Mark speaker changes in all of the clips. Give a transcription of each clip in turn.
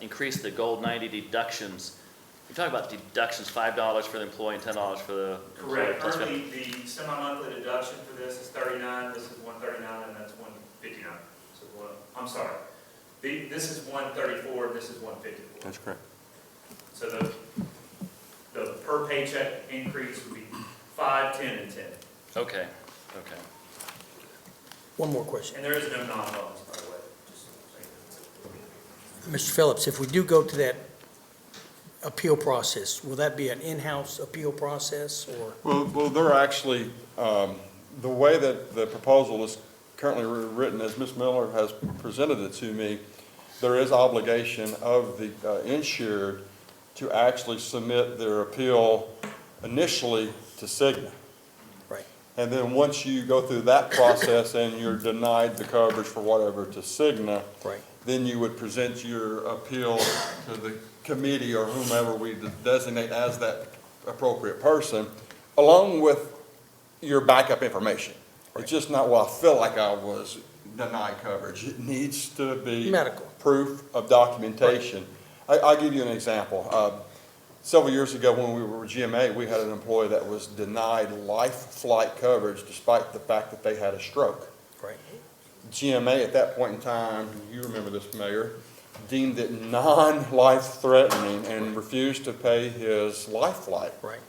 Speaker 1: increase the gold ninety deductions. You talk about deductions, five dollars for the employee and ten dollars for the. employee
Speaker 2: Correct,
Speaker 1: plus
Speaker 2: currently, the semi-monthly deduction for this is thirty-nine, this is one thirty-nine, and that's one fifty-nine. So, one, I'm sorry, the, this is one thirty-four, this is one fifty-four.
Speaker 3: That's correct.
Speaker 2: So the, the per paycheck increase would be five, ten, and ten.
Speaker 1: Okay, okay.
Speaker 4: One more question.
Speaker 2: And there is no non-bonus, by the way, just so you know.
Speaker 4: Mr. Phillips, if we do go to that appeal process, will that be an in-house appeal process or?
Speaker 3: Well, well, they're actually, um, the way that the proposal is currently written, as Ms. Miller has presented it to me, there is obligation of the uh, insured to actually submit their appeal initially to Cigna.
Speaker 4: Right.
Speaker 3: And then once you go through that process and you're denied the coverage for whatever to Cigna,
Speaker 4: Right.
Speaker 3: then you would present your appeal to the committee or whomever we designate as that appropriate person, along with your backup information. It's just not, well, I feel like I was denied coverage. It needs to be
Speaker 4: Medical.
Speaker 3: proof of documentation. I, I'll give you an example. Uh, Several years ago, when we were with GMA, we had an employee that was denied life flight coverage despite the fact that they had a stroke.
Speaker 4: Right.
Speaker 3: GMA at that point in time, you remember this, Mayor, deemed it non-life threatening and refused to pay his life flight.
Speaker 4: Right.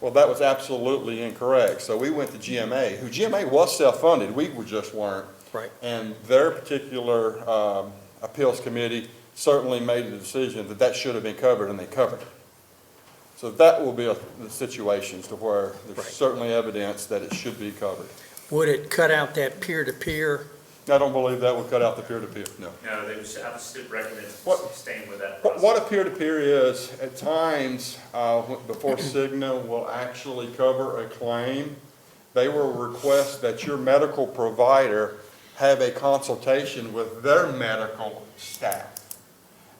Speaker 3: Well, that was absolutely incorrect. So we went to GMA, who GMA was self-funded, we were just weren't.
Speaker 4: Right.
Speaker 3: And their particular um, appeals committee certainly made the decision that that should have been covered, and they covered it. So that will be a- the situations to where
Speaker 4: Right.
Speaker 3: there's certainly evidence that it should be covered.
Speaker 4: Would it cut out that peer-to-peer?
Speaker 3: I don't believe that would cut out the peer-to-peer, no.
Speaker 2: No, they would, I would still recommend
Speaker 3: What-
Speaker 2: staying with that
Speaker 3: What
Speaker 2: process.
Speaker 3: what a peer-to-peer is, at times, uh, wh- before Cigna will actually cover a claim, they will request that your medical provider have a consultation with their medical staff.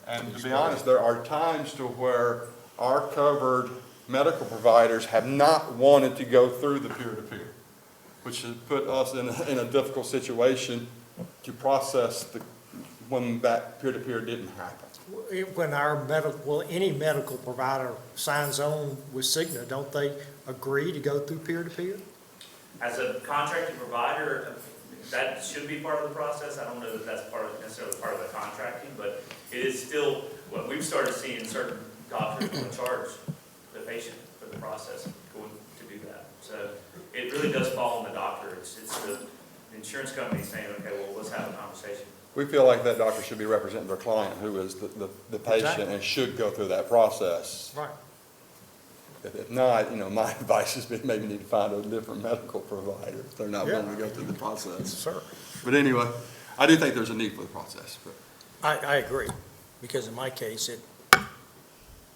Speaker 3: And to be honest, there are times to where our covered medical providers have not wanted to go through the peer-to-peer, which has put us in, a- in a difficult situation to process the, when that peer-to-peer didn't happen.
Speaker 5: When our medical, well, any medical provider signs on with Cigna, don't they agree to go through peer-to-peer?
Speaker 2: As a contracting provider, that should be part of the process. I don't know that that's part of, necessarily part of the contracting, but it is still, what we've started seeing certain doctors will charge the patient for the process going to do that. So it really does fall on the doctor. It's, it's the insurance company saying, okay, well, let's have a conversation.
Speaker 3: We feel like that doctor should be representing their client, who is the, the, the patient, and should go through that process.
Speaker 5: Right.
Speaker 3: If if not, you know, my advice has been maybe need to find a different medical provider, if they're not
Speaker 5: Yeah.
Speaker 3: willing to go through the process.
Speaker 5: Sir.
Speaker 3: But anyway, I do think there's a need for the process, but.
Speaker 4: I, I agree, because in my case, it,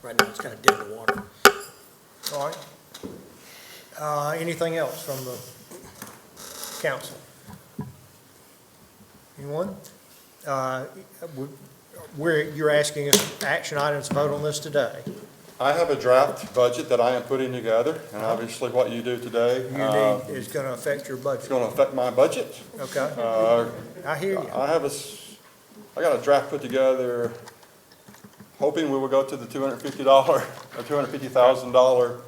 Speaker 4: right now, it's kind of dead in the water.
Speaker 5: All right. Uh, anything else from the council? Anyone? Uh, we- we're, you're asking us action items, vote on this today.
Speaker 3: I have a draft budget that I am putting together, and obviously what you do today,
Speaker 5: Uh-huh. You
Speaker 3: uh,
Speaker 5: need, it's gonna affect your
Speaker 3: it's
Speaker 5: budget,
Speaker 3: gonna affect my budget.
Speaker 5: okay?
Speaker 3: Uh,
Speaker 5: I hear you.
Speaker 3: I have a, s- I got a draft put together, hoping we will go to the two hundred fifty dollar, or two hundred fifty thousand dollar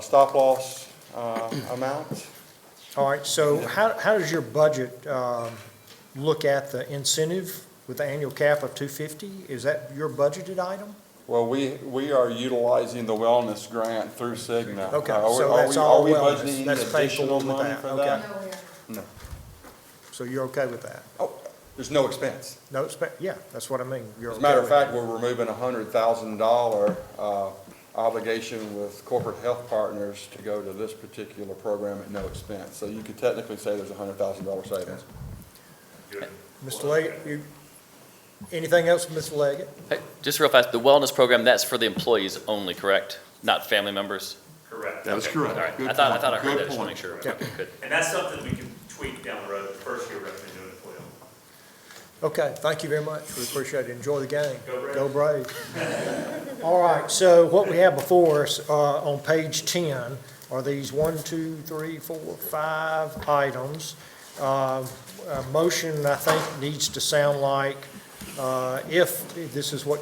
Speaker 3: stop loss uh, amount.
Speaker 5: All right, so how, how does your budget um, look at the incentive with the annual cap of 250? Is that your budgeted item?
Speaker 3: Well, we, we are utilizing the wellness grant through Cigna. Uh,
Speaker 5: Okay,
Speaker 3: Are we-
Speaker 5: so
Speaker 3: are
Speaker 5: that's
Speaker 3: we- are
Speaker 5: all
Speaker 3: we
Speaker 5: wellness.
Speaker 3: budgeting
Speaker 5: That's paid for
Speaker 3: additional
Speaker 5: with
Speaker 3: money
Speaker 5: that,
Speaker 3: for
Speaker 5: okay.
Speaker 3: that?
Speaker 6: Nowhere.
Speaker 3: No.
Speaker 5: So you're okay with that?
Speaker 3: Oh, there's no expense.
Speaker 5: No, it's, yeah, that's what I mean. You're
Speaker 3: As a
Speaker 5: okay
Speaker 3: matter of
Speaker 5: with
Speaker 3: fact, we're removing a hundred thousand dollar uh, obligation with corporate health partners to go to this particular program at no expense. So you could technically say there's a hundred thousand dollar savings.
Speaker 5: it. Mr. Leggett, you, anything else, Mr. Leggett?
Speaker 1: Hey, Just real fast, the wellness program, that's for the employees only, correct? Not family members?
Speaker 2: Correct.
Speaker 3: That is
Speaker 2: Okay.
Speaker 1: All
Speaker 3: correct.
Speaker 1: right,
Speaker 3: Good
Speaker 1: I thought, I
Speaker 3: point.
Speaker 1: thought I heard
Speaker 3: Good
Speaker 1: that, just want to
Speaker 3: point.
Speaker 1: make sure.
Speaker 5: Yeah.
Speaker 1: Okay, good.
Speaker 2: And that's something we can tweak down the road, the first year recommend doing it for them.
Speaker 5: Okay, thank you very much. We appreciate it. Enjoy the game.
Speaker 2: Go Braves.
Speaker 5: Go Braves. All right, so what we have before us, uh, on page ten, are these one, two, three, four, five items. Uh, a motion, I think, needs to sound like, uh, if, this is what